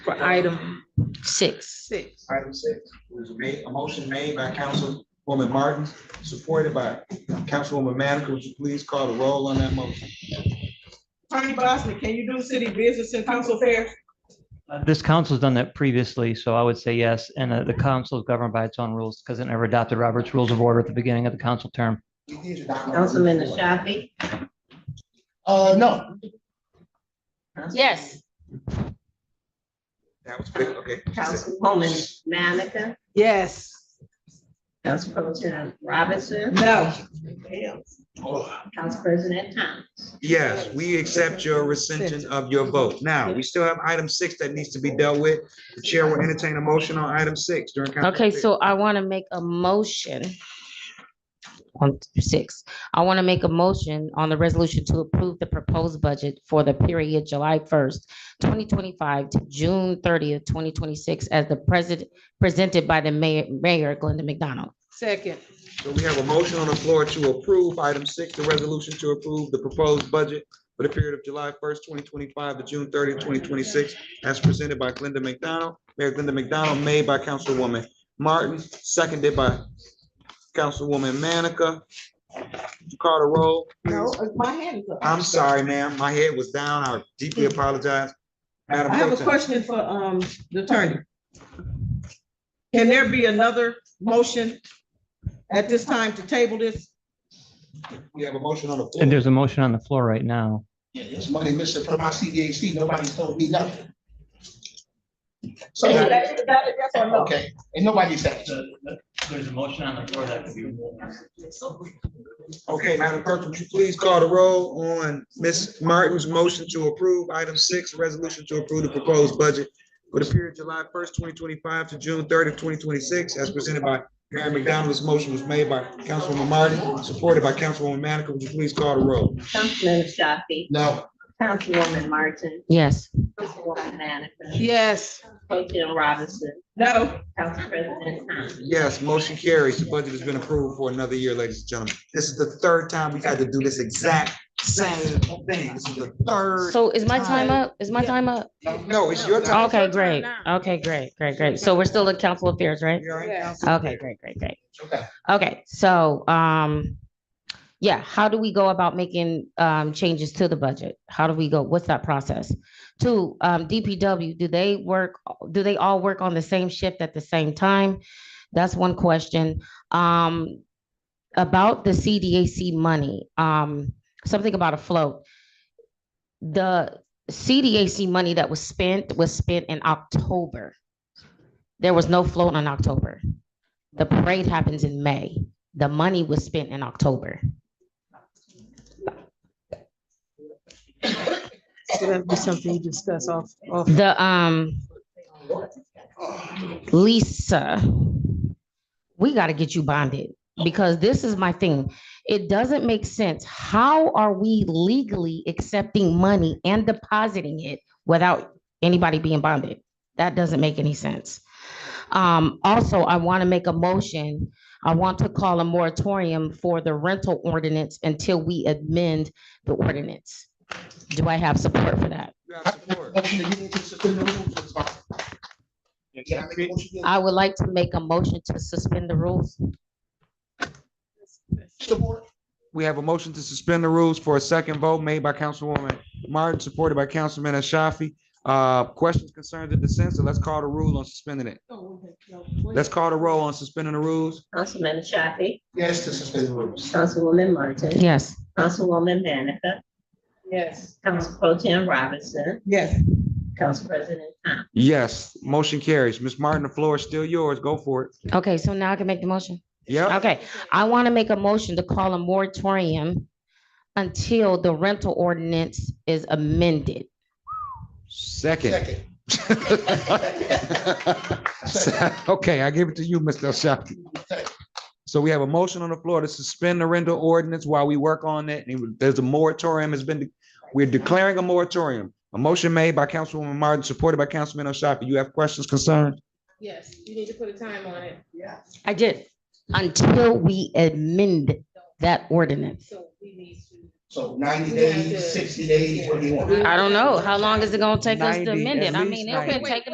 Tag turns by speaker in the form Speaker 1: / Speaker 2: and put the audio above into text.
Speaker 1: for item six.
Speaker 2: Six.
Speaker 3: Item six, there's a ma- a motion made by Councilwoman Martin, supported by Councilwoman Manica. Would you please call the roll on that motion?
Speaker 2: Tony Bosman, can you do city business and council affairs?
Speaker 4: Uh, This council's done that previously, so I would say yes, and uh, the council is governed by its own rules because it never adopted Robert's Rules of Order at the beginning of the council term.
Speaker 5: Councilman Ashafi?
Speaker 6: Uh, no,
Speaker 1: Yes.
Speaker 3: That was quick, okay.
Speaker 5: Councilwoman Manica?
Speaker 2: Yes.
Speaker 5: Council Pro Tem Robinson?
Speaker 2: No.
Speaker 5: Council President Thomas?
Speaker 3: Yes, we accept your rescission of your vote. Now, we still have item six that needs to be dealt with. The chair will entertain a motion on item six during. council
Speaker 1: Okay,
Speaker 3: affairs.
Speaker 1: so I want to make a motion on six. I want to make a motion on the resolution to approve the proposed budget for the period July first, twenty twenty-five to June thirtieth, twenty twenty-six, as the president, presented by the mayor, Mayor Glenda McDonald.
Speaker 2: Second.
Speaker 3: So we have a motion on the floor to approve item six, the resolution to approve the proposed budget for the period of July first, twenty twenty-five to June 30, 2026, as presented by Glenda McDonald, Mayor Glenda McDonald, made by Councilwoman Martin, seconded by Councilwoman Manica. Would you Call the roll.
Speaker 2: No, my hand is up.
Speaker 3: I'm sorry, ma'am. My head was down. I deeply apologize. Madam
Speaker 2: I have a
Speaker 3: Pro Tem.
Speaker 2: question for, um, the attorney. Can there be another motion at this time to table this?
Speaker 3: We have a motion on the
Speaker 4: And
Speaker 3: floor.
Speaker 4: there's a motion on the floor right now.
Speaker 6: yeah, there's money missing from my CDAC, nobody's told me nothing. So, okay, and nobody said.
Speaker 4: There's a motion on the floor that could be
Speaker 3: Okay, Madam Clerk, would you please call the roll on Ms. Martin's motion to approve item six, resolution to approve the proposed budget for the period July first, twenty twenty-five to June 30, 2026, as presented by Mayor McDonald. This motion was made by Councilwoman Martin, supported by Councilwoman Manica. Would you please call the roll?
Speaker 5: Councilman Ashafi?
Speaker 6: No,
Speaker 5: Councilwoman Martin?
Speaker 1: Yes.
Speaker 5: Councilwoman Manica?
Speaker 2: Yes.
Speaker 5: Pro Tem Robinson?
Speaker 2: No.
Speaker 5: Council President Thomas?
Speaker 3: Yes, motion carries. The budget has been approved for another year, ladies and gentlemen. This is the third time we've had to do this exact same thing. This is the third.
Speaker 1: So is my time up? Is my time up?
Speaker 3: No, it's your time.
Speaker 1: Okay, great. Okay, great, great, great. So we're still in council affairs, right?
Speaker 3: You're right, Council.
Speaker 1: Okay, great, great, great.
Speaker 6: okay.
Speaker 1: Okay, so, um, yeah, how do we go about making, um, changes to the budget? How do we go? What's that process? Two, um, DPW, do they work, do they all work on the same shift at the same time? That's one question. Um, about the CDAC money, um, something about a float. The CDAC money that was spent was spent in October. There was no float in October. The parade happens in May. The money was spent in October.
Speaker 2: So that'd be something you discuss off, off.
Speaker 1: The, um, Lisa, we gotta get you bonded because this is my thing. It doesn't make sense. How are we legally accepting money and depositing it without anybody being bonded? That doesn't make any sense. Um, also, I want to make a motion. I want to call a moratorium for the rental ordinance until we amend the ordinance. Do I have support for that?
Speaker 3: You have support.
Speaker 6: Motion to get into suspend the rules, it's fine. Can I make a motion?
Speaker 1: I would like to make a motion to suspend the rules.
Speaker 6: Support.
Speaker 3: We have a motion to suspend the rules for a second vote made by Councilwoman Martin, supported by Councilman Ashafi. Uh, questions, concerns, or dissents? So let's call the rule on suspending it. Let's call the roll on suspending the rules.
Speaker 5: Councilman Ashafi?
Speaker 6: Yes, to suspend the rules.
Speaker 5: Councilwoman Martin?
Speaker 1: Yes.
Speaker 5: Councilwoman Manica?
Speaker 2: Yes.
Speaker 5: Council Pro Tem Robinson?
Speaker 2: Yes.
Speaker 5: Council President Thomas?
Speaker 3: Yes, motion carries. Ms. Martin, the floor is still yours. Go for it.
Speaker 1: Okay, so now I can make the motion.
Speaker 3: Yep.
Speaker 1: Okay, I want to make a motion to call a moratorium until the rental ordinance is amended.
Speaker 3: Second.
Speaker 6: Second.
Speaker 3: Okay, I give it to you, Mr. Ashafi. So we have a motion on the floor to suspend the rental ordinance while we work on it. And There's a moratorium has been, we're declaring a moratorium. A motion made by Councilwoman Martin, supported by Councilman Ashafi. You have questions, concerns?
Speaker 2: Yes, you need to put a time on it. Yeah.
Speaker 1: I did. Until we amend that ordinance.
Speaker 2: So we need to.
Speaker 6: So ninety days, sixty days, what do you want?
Speaker 1: I don't know. How long is it gonna take us to amend it? I
Speaker 3: 90, at
Speaker 1: mean,
Speaker 3: least
Speaker 1: it could
Speaker 3: 90.
Speaker 1: take